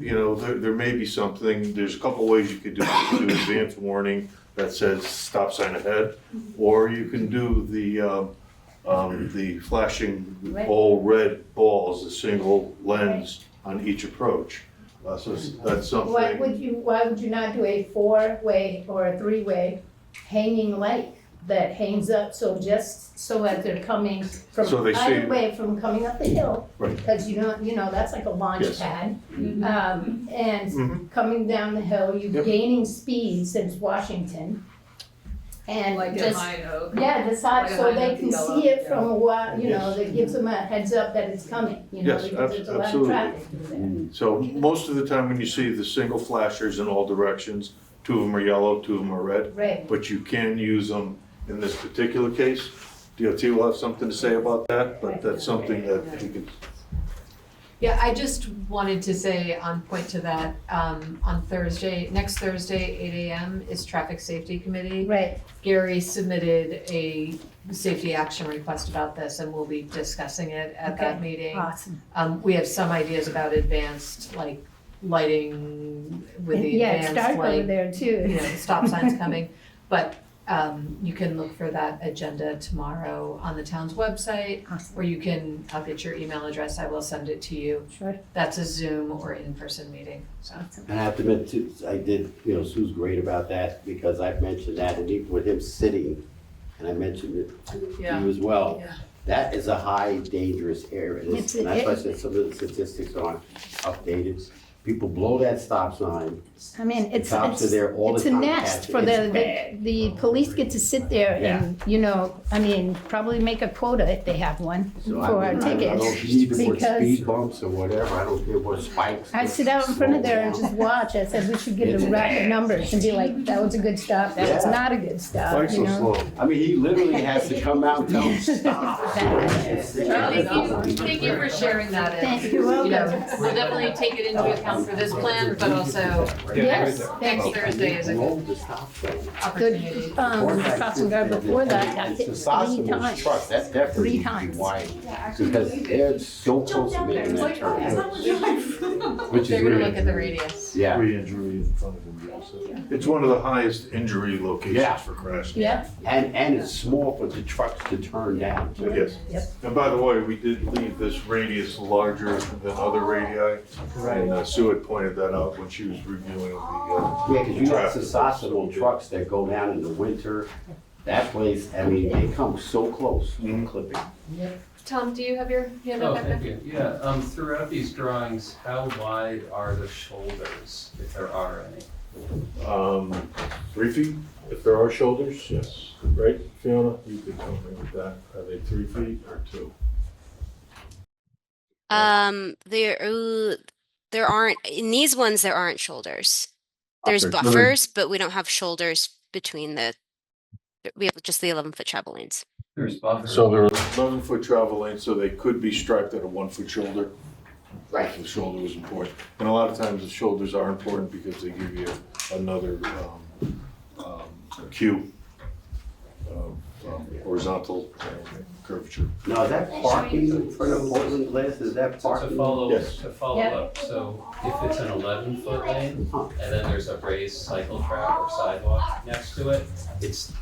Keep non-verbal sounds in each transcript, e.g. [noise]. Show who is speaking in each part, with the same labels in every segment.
Speaker 1: you know, there, there may be something, there's a couple ways you could do it. You could Do advance warning that says stop sign ahead,
Speaker 2: Mm-hmm.
Speaker 1: or you can do the, um, um, the flashing
Speaker 2: Red.
Speaker 1: all red balls, a single lens on each approach. Uh, so s- that's
Speaker 2: Why
Speaker 1: something,
Speaker 2: would you, why would you not do a four-way or a three-way hanging light that hangs up so just so that they're coming from
Speaker 1: So they see-
Speaker 2: either way from coming up the hill?
Speaker 1: Right.
Speaker 2: Cause you know, you know, that's like a launch
Speaker 1: Yes.
Speaker 2: pad.
Speaker 3: Mhm.
Speaker 2: Um,
Speaker 1: Mhm.
Speaker 2: and coming down the hill, you're
Speaker 1: Yep.
Speaker 2: gaining speed since Washington. And
Speaker 3: Like in
Speaker 2: just
Speaker 3: High Oak.
Speaker 2: Yeah, the side,
Speaker 3: Like a
Speaker 2: so
Speaker 3: high
Speaker 2: they
Speaker 3: note
Speaker 2: can
Speaker 3: yellow,
Speaker 2: see it
Speaker 3: yeah.
Speaker 2: from a while, you know,
Speaker 1: Yes.
Speaker 2: that gives them a heads up that it's coming, you know,
Speaker 1: Yes,
Speaker 2: because
Speaker 1: ab-
Speaker 2: there's a lot of
Speaker 1: absolutely.
Speaker 2: traffic through there.
Speaker 1: so most of the time when you see the single flashers in all directions, two of them are yellow, two of them are red,
Speaker 2: Right,
Speaker 1: but you can use them in this particular case. DOT will have something to say about that, but that's something that you can
Speaker 3: Yeah, I just wanted to say on point to that, um, on Thursday, next Thursday, eight AM is Traffic Safety Committee.
Speaker 2: right,
Speaker 3: Gary submitted a safety action request about this and we'll be discussing it at that
Speaker 2: Okay.
Speaker 3: meeting.
Speaker 2: awesome.
Speaker 3: Um, we have some ideas about advanced, like, lighting with the
Speaker 2: Yeah, it's
Speaker 3: advanced,
Speaker 2: dark over
Speaker 3: like,
Speaker 2: there
Speaker 3: you
Speaker 2: too.
Speaker 3: know,
Speaker 2: [laughs]
Speaker 3: stop signs coming. But, um, you can look for that agenda tomorrow on the town's website,
Speaker 2: Awesome.
Speaker 3: or you can, I'll get your email address, I will send it to you.
Speaker 2: Sure.
Speaker 3: That's a Zoom or in-person meeting, so.
Speaker 4: And I have to admit too, I did, you know, Sue's great about that because I've mentioned that and even with him sitting, and I mentioned it to you as well.
Speaker 3: Yeah.
Speaker 4: That is a high dangerous area. And
Speaker 2: Yes,
Speaker 4: it's-
Speaker 2: it
Speaker 4: And that's why I
Speaker 2: is.
Speaker 4: said some of the statistics aren't updated. People blow that stop sign.
Speaker 2: I mean, it's,
Speaker 4: Cops are
Speaker 2: it's,
Speaker 4: there all the
Speaker 2: it's a
Speaker 4: time.
Speaker 2: nest for the, the,
Speaker 4: Oh,
Speaker 2: the police get to sit there and, you know, I mean, probably make a quota if they have one
Speaker 4: So I
Speaker 2: for our
Speaker 4: don't- I don't- I don't
Speaker 2: tickets.
Speaker 4: need to put
Speaker 2: because-
Speaker 4: speed bumps or whatever. I don't care what spikes.
Speaker 2: I'd sit out in front of there and just watch, I said, we should get a rack of numbers and be like, that was a good stop, that was
Speaker 4: Yeah.
Speaker 2: not a good stop,
Speaker 1: Bike's
Speaker 2: uh, you
Speaker 1: so
Speaker 2: know?
Speaker 1: slow.
Speaker 4: I mean, he literally has to come out and
Speaker 2: [laughs]
Speaker 4: tell them, stop. It's-
Speaker 3: Thank you, thank you for sharing that and,
Speaker 2: Thank
Speaker 3: you
Speaker 2: you.
Speaker 3: know, we'll definitely take it into account for this plan, but also
Speaker 2: Yes, thank
Speaker 3: next
Speaker 2: you.
Speaker 3: Thursday is a good
Speaker 4: Roll the stop sign.
Speaker 3: opportunity.
Speaker 2: Um, crossing guard before that, got hit
Speaker 4: It's Sasha
Speaker 2: three
Speaker 4: was
Speaker 2: times.
Speaker 4: trucked. that definitely
Speaker 2: Three
Speaker 4: should be
Speaker 2: times.
Speaker 4: wide, because they're so close to making that turn, which
Speaker 3: They're
Speaker 4: is
Speaker 3: gonna look
Speaker 4: really,
Speaker 3: at the radius.
Speaker 4: yeah.
Speaker 1: Re-injury in front of him, It's one of the highest injury
Speaker 4: Yeah.
Speaker 1: locations for crashes.
Speaker 2: Yeah,
Speaker 4: And, and it's small for the trucks to turn down, too.
Speaker 1: Yes.
Speaker 2: Yep.
Speaker 1: And by the way, we did leave this radius larger than other radii. And uh, Sue had pointed that out when she was reviewing the. uh,
Speaker 4: Yeah, because you got
Speaker 1: traffic.
Speaker 4: Sasasimo trucks that go down in the winter, that place, I mean, they come so close,
Speaker 1: Mhm.
Speaker 4: clipping.
Speaker 3: Tom, do you have your hand
Speaker 5: Oh,
Speaker 3: up? Becca?
Speaker 5: thank you, yeah, um, throughout these drawings, how wide are the shoulders, if there are any?
Speaker 1: Um, Three feet, if there are shoulders, yes, right, Fiona? You could help me with that. Are they three feet or two?
Speaker 6: Um, there, ooh, there aren't, in these ones, there aren't shoulders. There's
Speaker 1: Okay, so then-
Speaker 6: buffers, but we don't have shoulders between the, we have just the eleven foot travel lanes.
Speaker 5: There's buffers.
Speaker 1: there are. Eleven foot travel lane, so they could be striped at a one foot shoulder. Right. The shoulder was important, and a lot of times the shoulders are important because they give you another, um, um, cue of um, horizontal uh, curvature.
Speaker 4: Now, is that parking in front of Portland Glass, is that
Speaker 5: So to
Speaker 4: parking?
Speaker 5: follow,
Speaker 1: Yes.
Speaker 5: to follow
Speaker 2: Yeah.
Speaker 5: up, so if it's an eleven foot lane,
Speaker 4: Huh.
Speaker 5: and then there's a raised cycle track or sidewalk next to it, it's,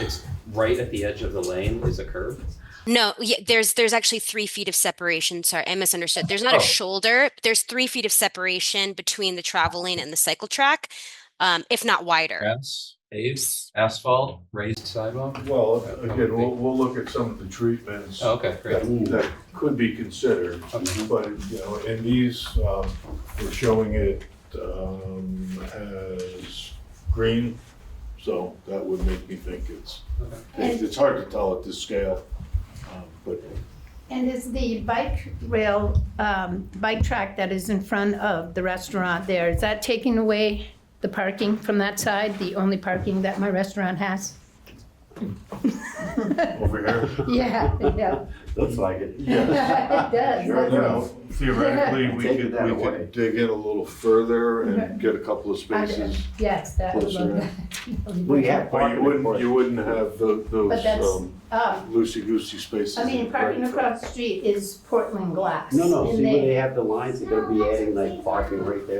Speaker 5: it's right at the edge of the lane is a curb?
Speaker 6: No, yeah, there's, there's actually three feet of separation. Sorry, I misunderstood. There's not
Speaker 5: Oh.
Speaker 6: a shoulder. but There's three feet of separation between the travel lane and the cycle track, um, if not wider.
Speaker 5: Grass, paved, asphalt, raised sidewalk?
Speaker 1: Well, again, we'll, we'll look at some of the treatments
Speaker 5: Oh, Okay,
Speaker 1: that,
Speaker 5: great.
Speaker 1: that could be considered,
Speaker 5: Okay.
Speaker 1: but, you know, and these, um, we're showing it, um, as green, so that would make me think it's,
Speaker 5: Okay.
Speaker 1: it's it's hard to tell at this scale, um, but
Speaker 2: and is the bike rail, um, bike track that is in front of the restaurant there, is that taking away the parking from that side, the only parking that my restaurant has? [laughs]
Speaker 1: over here.
Speaker 2: Yeah, yeah. [laughs]
Speaker 4: Looks like it. [laughs]
Speaker 2: It does.
Speaker 4: Sure
Speaker 1: Now,
Speaker 4: enough.
Speaker 2: [laughs]
Speaker 1: theoretically, we
Speaker 4: Take
Speaker 1: could,
Speaker 4: that
Speaker 1: we
Speaker 4: away.
Speaker 1: could dig in a little further and get a couple of spaces.
Speaker 2: Yes, that would
Speaker 1: Closer
Speaker 2: love
Speaker 1: in.
Speaker 2: that.
Speaker 4: We have
Speaker 1: But
Speaker 4: parking.
Speaker 1: you wouldn't, you wouldn't have tho-
Speaker 2: But
Speaker 1: those,
Speaker 2: that's-
Speaker 1: um,
Speaker 2: Um,
Speaker 1: loosey-goosey spaces.
Speaker 2: I mean,
Speaker 1: in
Speaker 2: parking
Speaker 1: Frankfurt.
Speaker 2: across the street is Portland glass.
Speaker 4: No, no,
Speaker 2: and
Speaker 4: see where
Speaker 2: they-
Speaker 4: they have the lines, they're gonna be adding like parking right there.